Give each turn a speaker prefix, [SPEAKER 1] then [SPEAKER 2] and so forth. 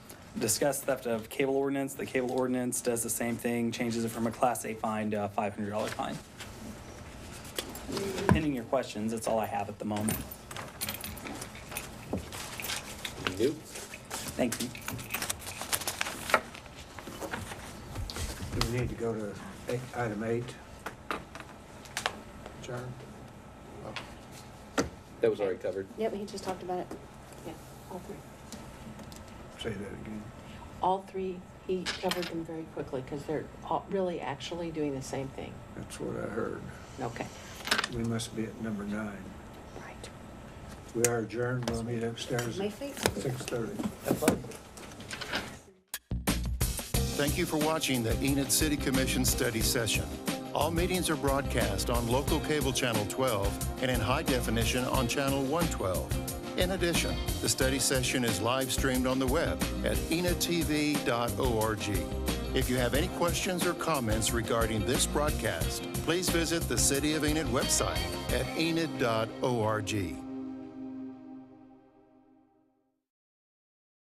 [SPEAKER 1] discussed theft of cable ordinance. The cable ordinance does the same thing, changes it from a Class A fine to a $500 fine. Pending your questions, that's all I have at the moment.
[SPEAKER 2] Nope.
[SPEAKER 1] Thank you.
[SPEAKER 3] Do we need to go to eight- item eight? John? Oh,
[SPEAKER 2] That was already covered.
[SPEAKER 4] Yep, he just talked about it. Yeah, all three.
[SPEAKER 3] Say that again.
[SPEAKER 4] All three, he covered them very quickly because they're all really actually doing the same thing.
[SPEAKER 3] That's what I heard.
[SPEAKER 4] Okay,
[SPEAKER 3] We must be at number nine.
[SPEAKER 4] right.
[SPEAKER 3] We are adjourned. We'll meet upstairs
[SPEAKER 4] My
[SPEAKER 3] at
[SPEAKER 4] feet.
[SPEAKER 3] six thirty.
[SPEAKER 5] Thank you for watching the Enid City Commission study session. All meetings are broadcast on local cable channel 12 and in high definition on channel 112. In addition, the study session is live streamed on the web at enidtv.org. If you have any questions or comments regarding this broadcast, please visit the City of Enid website at enid.org.